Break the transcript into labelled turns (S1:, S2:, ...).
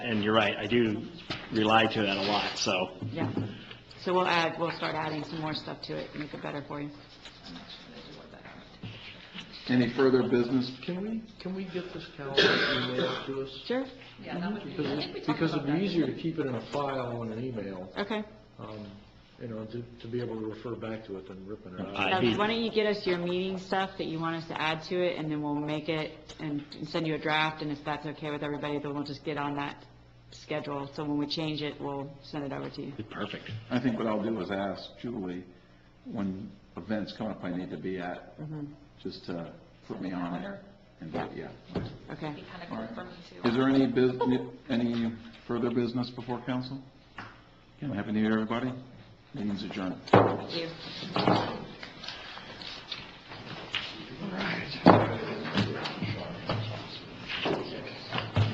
S1: And you're right, I do rely to that a lot, so,
S2: Yeah. So we'll add, we'll start adding some more stuff to it, make it better for you.
S3: Any further business?
S4: Can we, can we get this calendar emailed to us?
S2: Sure?
S5: Yeah, that would be, I think we
S4: Because
S5: talked
S4: because
S5: about
S4: it'd be
S5: that.
S4: easier to keep it in a file on an email,
S2: Okay.
S4: um, you know, to to be able to refer back to it than ripping it out.
S1: I-
S2: Now,
S1: he-
S2: why don't you get us your meeting stuff that you want us to add to it, and then we'll make it and and send you a draft, and if that's okay with everybody, then we'll just get on that schedule. So when we change it, we'll send it over to you.
S1: perfect.
S3: I think what I'll do is ask Julie when events come up I need to be at, just to put me on it. And, do it, yeah.
S2: Okay.
S5: Be kind of
S3: All
S5: cool
S3: right.
S5: for me too.
S3: Is there any business, any further business before council? Happy New Year, everybody. Meeting's adjourned.
S2: Thank you.